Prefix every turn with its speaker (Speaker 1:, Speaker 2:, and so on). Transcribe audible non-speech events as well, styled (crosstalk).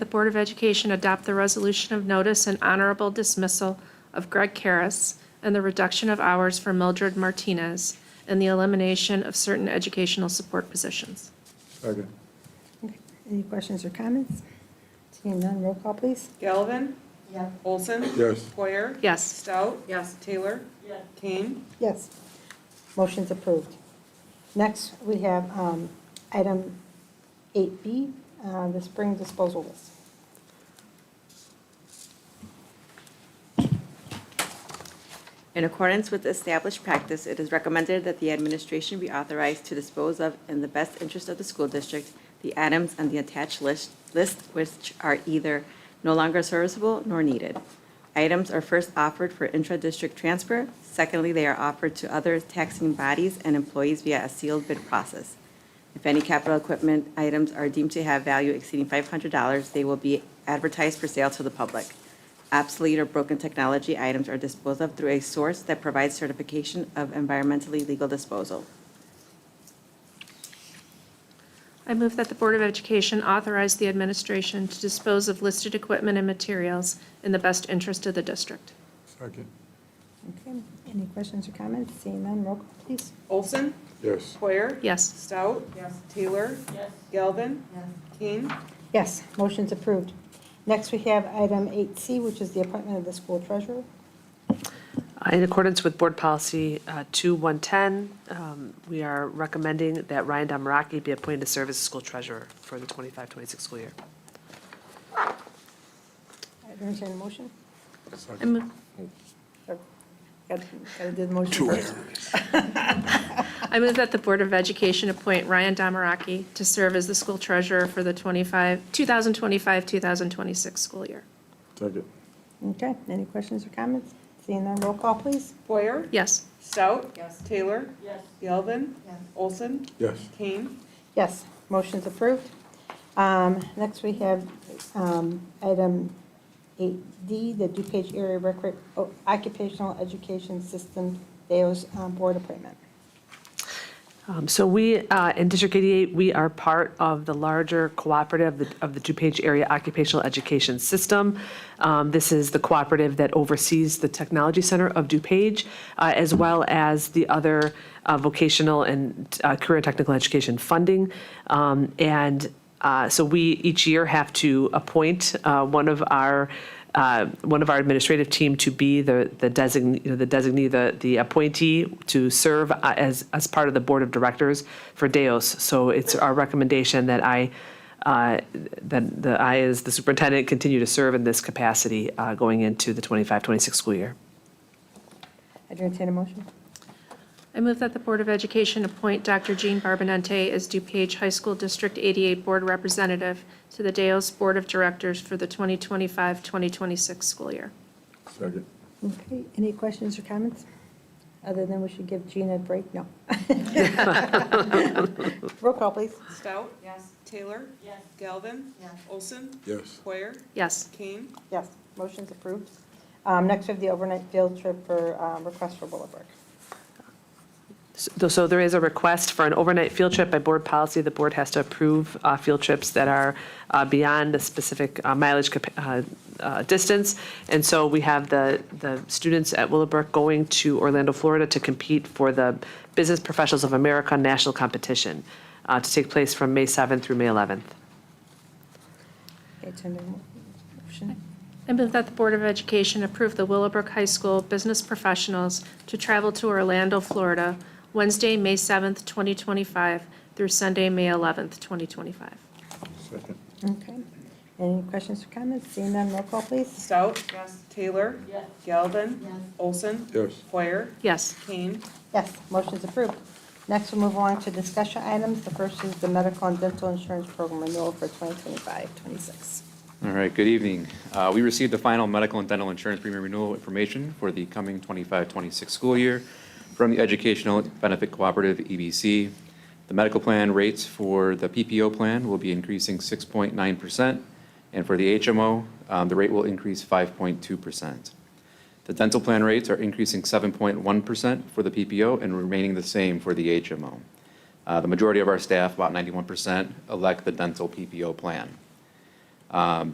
Speaker 1: Board of Education adopt the resolution of notice and honorable dismissal of Greg Karas and the reduction of hours for Mildred Martinez and the elimination of certain educational support positions.
Speaker 2: Second.
Speaker 3: Any questions or comments? Seeing none, roll call, please.
Speaker 4: Galvin? Yes. Olson?
Speaker 2: Yes.
Speaker 4: Poyer?
Speaker 1: Yes.
Speaker 4: Stout? Yes. Taylor? Yes. Kane?
Speaker 3: Yes. Motion's approved. Next, we have um, item 8B, uh, the spring disposal list.
Speaker 5: In accordance with established practice, it is recommended that the administration be authorized to dispose of, in the best interest of the school district, the items on the attached list, list which are either no longer serviceable nor needed. Items are first offered for intra-district transfer. Secondly, they are offered to other taxing bodies and employees via a sealed bid process. If any capital equipment items are deemed to have value exceeding $500, they will be advertised for sale to the public. Obsolete or broken technology items are disposed of through a source that provides certification of environmentally legal disposal.
Speaker 1: I move that the Board of Education authorize the administration to dispose of listed equipment and materials in the best interest of the district.
Speaker 2: Second.
Speaker 3: Okay, any questions or comments? Seeing none, roll call, please.
Speaker 4: Olson?
Speaker 2: Yes.
Speaker 4: Poyer?
Speaker 1: Yes.
Speaker 4: Stout? Yes. Taylor? Yes. Galvin? Yes. Kane?
Speaker 3: Yes, motion's approved. Next, we have item 8C, which is the appointment of the school treasurer.
Speaker 6: Uh, In accordance with Board Policy uh, 2110, um, we are recommending that Ryan Damaraki be appointed to serve as school treasurer for the 25-26 school year.
Speaker 3: I entertain a motion.
Speaker 1: I move-
Speaker 3: Got to do the motion first.
Speaker 1: I move that the Board of Education appoint Ryan Damaraki to serve as the school treasurer for the 25, 2025-2026 school year.
Speaker 2: Second.
Speaker 3: Okay, any questions or comments? Seeing none, roll call, please.
Speaker 4: Poyer?
Speaker 1: Yes.
Speaker 4: Stout? Yes. Taylor? Yes. Galvin? Yes. Olson?
Speaker 2: Yes.
Speaker 4: Kane?
Speaker 3: Yes, motion's approved. Um, Next, we have um, item 8D, the DuPage Area Recre- oh, Occupational Education System Deos um, Board Appointment.
Speaker 6: Um, So we, uh, in District 88, we are part of the larger cooperative of the- of the DuPage Area Occupational Education System. Um, This is the cooperative that oversees the Technology Center of DuPage, uh, as well as the other uh, vocational and uh, career technical education funding. Um, And uh, So we each year have to appoint uh, one of our, uh, one of our administrative team to be the the designee, you know, the designee, the the appointee to serve uh, as, as part of the Board of Directors for DEOS. So it's our recommendation that I, uh, that that I, as the superintendent, continue to serve in this capacity uh, going into the 25, 26 school year.
Speaker 3: I entertain a motion.
Speaker 1: I move that the Board of Education appoint Dr. Jean Barbonente as DuPage High School District 88 Board Representative to the Deos Board of Directors for the 2025-2026 school year.
Speaker 2: Second.
Speaker 3: Okay, any questions or comments? Other than we should give Gina a break? (laughs) No. Roll call, please.
Speaker 4: Stout? Yes. Taylor? Yes. Galvin? Yes. Olson?
Speaker 2: Yes.
Speaker 4: Poyer?
Speaker 1: Yes.
Speaker 4: Kane?
Speaker 3: Yes, motion's approved. Um, Next, we have the overnight field trip for um, request for Willowbrook.
Speaker 6: So so there is a request for an overnight field trip by board policy. The board has to approve uh, field trips that are uh, beyond the specific uh, mileage capa- uh, uh, distance. And so we have the, the students at Willowbrook going to Orlando, Florida to compete for the Business Professionals of America National Competition uh, to take place from May 7th through May 11th.
Speaker 3: Okay, entertain a motion.
Speaker 1: I move that the Board of Education approve the Willowbrook High School business professionals to travel to Orlando, Florida, Wednesday, May 7th, 2025 through Sunday, May 11th, 2025.
Speaker 2: Second.
Speaker 3: Okay. Any questions or comments? Seeing none, roll call, please.
Speaker 4: Stout? Yes. Taylor? Yes. Galvin? Yes. Olson?
Speaker 2: Yes.
Speaker 4: Poyer?
Speaker 1: Yes.
Speaker 4: Kane?
Speaker 3: Yes, motion's approved. Next, we'll move on to discussion items. The first is the medical and dental insurance program renewal for 2025-26.
Speaker 7: All right, good evening. Uh, We received the final medical and dental insurance premium renewal information for the coming 25-26 school year from the Educational Benefit Cooperative, EBC. The medical plan rates for the PPO plan will be increasing 6.9%, and for the HMO, um, the rate will increase 5.2%. The dental plan rates are increasing 7.1% for the PPO and remaining the same for the HMO. Uh, The majority of our staff, about 91%, elect the dental PPO plan.